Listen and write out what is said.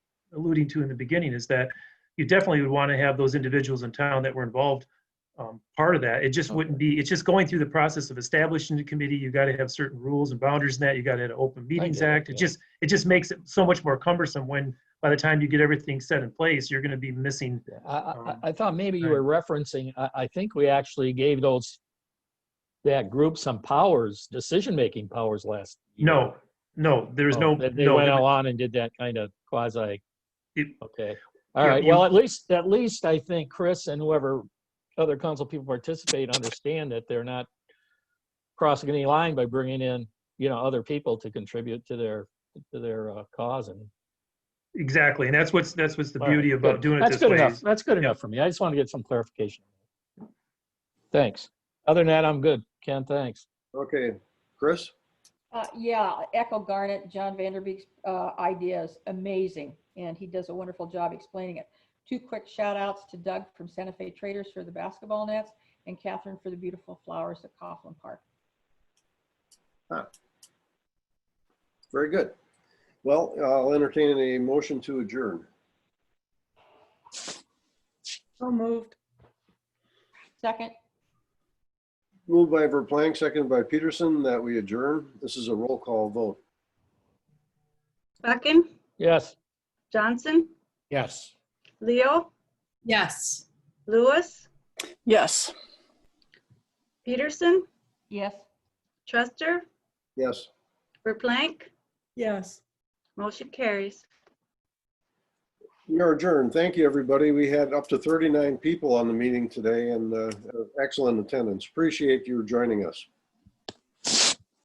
alluding to in the beginning is that you definitely would want to have those individuals in town that were involved um, part of that. It just wouldn't be, it's just going through the process of establishing the committee. You got to have certain rules and boundaries in that. You got to have an Open Meetings get it, Act. It yeah. just, it just makes it so much more cumbersome when, by the time you get everything set in place, you're going to be missing. Yeah, I, I, Um, I thought maybe you right. were referencing, I, I think we actually gave those, that group some powers, decision-making powers last. year. No, no, there is no, Oh, They they no. went there- on and did that kind of quasi, It- okay. All Yeah, right, you- well, at least, at least I think Chris and whoever other council people participate understand that they're not crossing any line by bringing in, you know, other people to contribute to their, to their uh, cause and. Exactly, and that's what's, that's what's the All right, beauty about good. doing it That's this good way. enough. is- That's good enough for me. I just want to get some clarification. Thanks. Other than that, I'm good. Ken, thanks. Okay, Chris? Uh, yeah, Echo Garnet, John Vanderbeek's, uh, idea is amazing and he does a wonderful job explaining it. Two quick shout outs to Doug from Santa Fe Traders for the basketball nets and Catherine for the beautiful flowers at Coughlin Park. Very good. Well, uh, I'll entertain a motion to adjourn. So moved. Second, Moved by Verplank, seconded by Peterson, that we adjourn. This is a roll call vote. Buckin, Yes. Johnson, Yes. Leo, Yes. Lewis, Yes. Peterson, yes. Truster, Yes. Verplank. Yes. Motion carries. We are adjourned. Thank you, everybody. We had up to 39 people on the meeting today and uh, excellent attendance. Appreciate you joining us.